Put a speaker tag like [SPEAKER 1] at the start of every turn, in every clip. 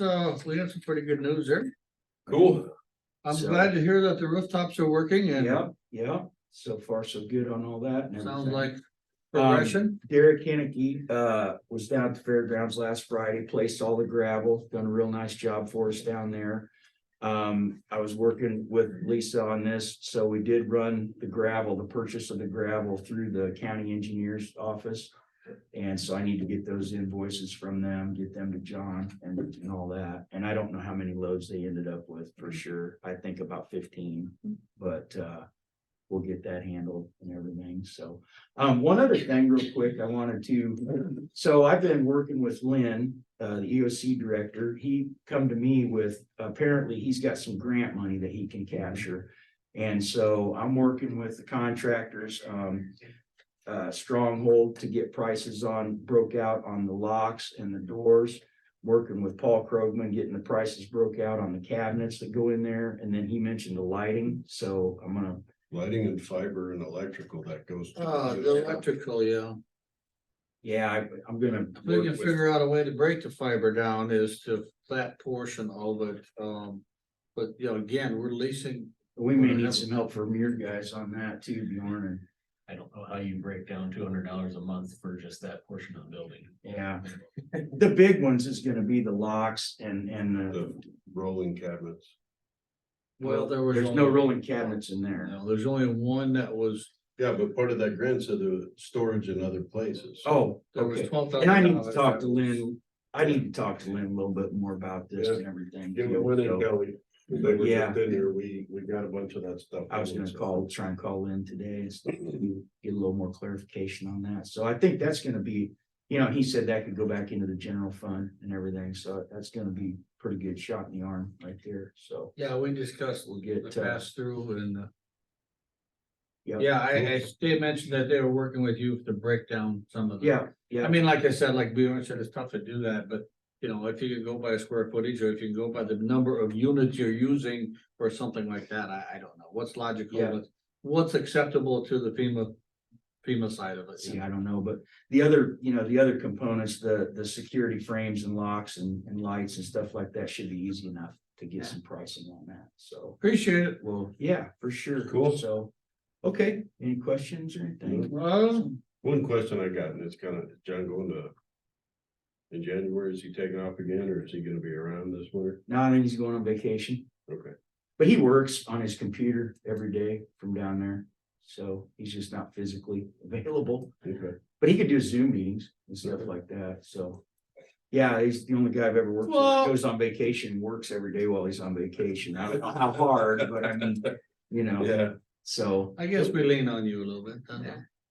[SPEAKER 1] uh, we have some pretty good news there.
[SPEAKER 2] Cool.
[SPEAKER 1] I'm
[SPEAKER 2] So-
[SPEAKER 1] glad to hear that the rooftops are working and
[SPEAKER 2] Yeah, yeah. So far, so good on all that. and
[SPEAKER 1] sounds
[SPEAKER 2] everything.
[SPEAKER 1] like progression.
[SPEAKER 2] Um, Derek Hannicky, uh, was down at the fairgrounds last Friday, placed all the gravel, done a real nice job for us down there. Um, I was working with Lisa on this, so we did run the gravel, the purchase of the gravel through the county engineer's office. And so I need to get those invoices from them, get them to John and, and all that. And I don't know how many loads they ended up with for sure. I think about fifteen, but, uh, we'll get that handled and everything. So, um, one other thing real quick I wanted to, so I've been working with Lynn, uh, the EOC director. He come to me with, apparently he's got some grant money that he can capture. And so I'm working with the contractors, um, uh, Stronghold to get prices on, broke out on the locks and the doors. Working with Paul Krogman, getting the prices broke out on the cabinets that go in there. And then he mentioned the lighting, so I'm gonna
[SPEAKER 3] Lighting and fiber and electrical that goes. to
[SPEAKER 1] Uh, the electrical, yeah.
[SPEAKER 2] Yeah, I, I'm gonna.
[SPEAKER 1] If They
[SPEAKER 2] work
[SPEAKER 1] can
[SPEAKER 2] with-
[SPEAKER 1] figure out a way to break the fiber down is to that portion of it. Um, but you know, again, we're leasing.
[SPEAKER 2] We may need some help from your guys on that too, Bjorn, and,
[SPEAKER 4] I don't know how you break down two hundred dollars a month for just that portion of the building.
[SPEAKER 2] yeah. The big ones is gonna be the locks and, and the,
[SPEAKER 3] The rolling cabinets.
[SPEAKER 1] Well, there was.
[SPEAKER 2] there's no
[SPEAKER 1] only-
[SPEAKER 2] rolling cabinets in there.
[SPEAKER 1] No, there's only one that was,
[SPEAKER 3] Yeah, but part of that grant said the storage in other places.
[SPEAKER 2] Oh,
[SPEAKER 1] there was
[SPEAKER 2] okay.
[SPEAKER 1] twelve thousand.
[SPEAKER 2] And I need to talk to Lynn, I need to talk to Lynn a little bit more about this and everything.
[SPEAKER 3] Give it when it
[SPEAKER 2] too, so
[SPEAKER 3] go. They were
[SPEAKER 2] Yeah.
[SPEAKER 3] just in here, we, we got a bunch of that stuff.
[SPEAKER 2] I was gonna call, try and call Lynn today and stuff, to get a little more clarification on that. So I think that's gonna be, you know, he said that could go back into the general fund and everything, so that's gonna be pretty good shot in the arm right there, so.
[SPEAKER 1] Yeah, we discussed
[SPEAKER 2] We'll
[SPEAKER 1] the
[SPEAKER 2] get, uh,
[SPEAKER 1] pass through and. uh,
[SPEAKER 2] Yeah.
[SPEAKER 1] Yeah, I, I, they mentioned that they were working with you to break down some of the.
[SPEAKER 2] Yeah,
[SPEAKER 1] I
[SPEAKER 2] yeah,
[SPEAKER 1] mean, like I said, like Bjorn said, it's tough to do that, but you know, if you can go by square footage or if you can go by the number of units you're using or something like that, I, I don't know. What's logical?
[SPEAKER 2] Yeah.
[SPEAKER 1] what's- What's acceptable to the FEMA, FEMA side of it? you
[SPEAKER 2] see,
[SPEAKER 1] know?
[SPEAKER 2] I don't know, but the other, you know, the other components, the, the security frames and locks and, and lights and stuff like that should be easy enough to
[SPEAKER 1] Yeah.
[SPEAKER 2] get some pricing on that, so.
[SPEAKER 1] Appreciate it.
[SPEAKER 2] Well, yeah, for sure.
[SPEAKER 3] Cool.
[SPEAKER 2] So, okay, any questions or anything?
[SPEAKER 1] Well,
[SPEAKER 3] One question I got, and it's kind of, John going to. In January, is he taking off again or is he gonna be around this winter?
[SPEAKER 2] No, I think he's going on vacation,
[SPEAKER 3] Okay,
[SPEAKER 2] but he works on his computer every day from down there. So he's just not physically available,
[SPEAKER 3] okay.
[SPEAKER 2] but he could do Zoom meetings and stuff like that, so. Yeah, he's the only guy I've ever worked with, that
[SPEAKER 1] Well-
[SPEAKER 2] goes on vacation, works every day while he's on vacation. I don't know how hard, but I mean, you know,
[SPEAKER 3] Yeah,
[SPEAKER 2] so
[SPEAKER 1] I guess we lean on you a little bit. huh?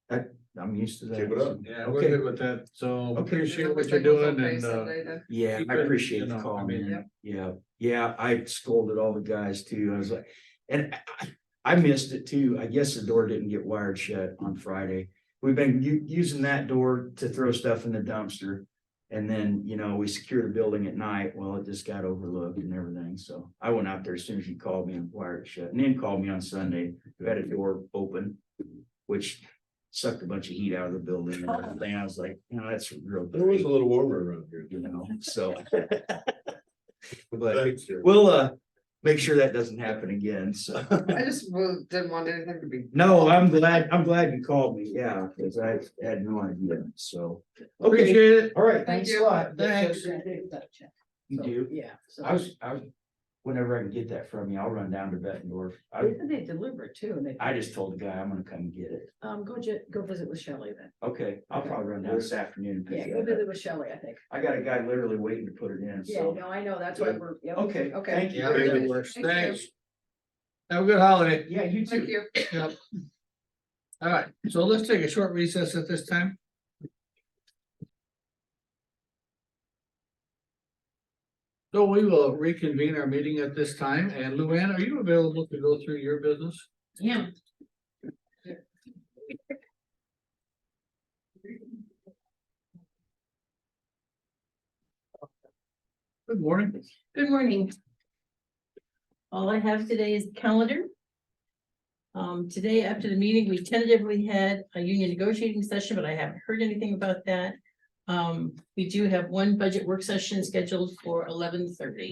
[SPEAKER 5] Yeah.
[SPEAKER 2] I'm used to that.
[SPEAKER 3] Keep it up.
[SPEAKER 1] Yeah, we're
[SPEAKER 2] Okay.
[SPEAKER 1] good with that. So
[SPEAKER 2] Okay.
[SPEAKER 1] appreciate what you're doing and, uh,
[SPEAKER 2] Yeah,
[SPEAKER 1] Keep
[SPEAKER 2] I
[SPEAKER 1] it, you
[SPEAKER 2] appreciate
[SPEAKER 1] know,
[SPEAKER 2] the
[SPEAKER 1] I
[SPEAKER 2] call,
[SPEAKER 1] mean,
[SPEAKER 2] man. Yeah, yeah, I scolded all the guys too. I was like, and I- I- I missed it too. I guess the door didn't get wired shut on Friday. We've been u- using that door to throw stuff in the dumpster. And then, you know, we secure the building at night. Well, it just got overlooked and everything. So I went out there as soon as you called me and wired it shut and then called me on Sunday. We Had a door open, which sucked a bunch of heat out of the building. And everything. I was like, you know, that's real.
[SPEAKER 3] there was
[SPEAKER 2] great,
[SPEAKER 3] a little warmer around here.
[SPEAKER 2] You know, so. But
[SPEAKER 3] Thanks, sir.
[SPEAKER 2] we'll uh make sure that doesn't happen again. So
[SPEAKER 1] uh,
[SPEAKER 5] I just well, didn't want anything to be.
[SPEAKER 2] no, I'm glad, I'm glad you called me. Yeah, because I had no idea. So. Okay,
[SPEAKER 1] appreciate it.
[SPEAKER 2] all right.
[SPEAKER 5] Thank
[SPEAKER 2] Thanks a
[SPEAKER 5] you.
[SPEAKER 2] lot.
[SPEAKER 1] Thanks.
[SPEAKER 2] You do?
[SPEAKER 5] Yeah.
[SPEAKER 2] I was, I was, whenever I can get that from you, I'll run down to Bettendorf. I,
[SPEAKER 6] They deliver too, and they,
[SPEAKER 2] I just told the guy I'm gonna come get it.
[SPEAKER 6] um, go ju- go visit with Shelley then.
[SPEAKER 2] Okay, I'll probably run down this afternoon. and
[SPEAKER 6] Yeah,
[SPEAKER 2] pick
[SPEAKER 6] go
[SPEAKER 2] it up.
[SPEAKER 6] visit with Shelley, I think.
[SPEAKER 2] I got a guy literally waiting to put it in,
[SPEAKER 6] Yeah,
[SPEAKER 2] so.
[SPEAKER 6] no, I know, that's why we're, yeah,
[SPEAKER 2] Okay,
[SPEAKER 6] Okay.
[SPEAKER 2] thank you.
[SPEAKER 1] Yeah,
[SPEAKER 2] very
[SPEAKER 1] that
[SPEAKER 2] much.
[SPEAKER 1] works.
[SPEAKER 5] Thank you.
[SPEAKER 1] Thanks. Have a good holiday.
[SPEAKER 2] Yeah, you
[SPEAKER 5] Thank
[SPEAKER 2] too.
[SPEAKER 5] you.
[SPEAKER 1] Yep. All right, so let's take a short recess at this time. So we will reconvene our meeting at this time, and Luann, are you available to go through your business?
[SPEAKER 6] Yeah.
[SPEAKER 1] Good morning.
[SPEAKER 7] Good morning. All I have today is the calendar. Um, today after the meeting, we tentatively had a union negotiating session, but I haven't heard anything about that. Um, we do have one budget work session scheduled for eleven thirty.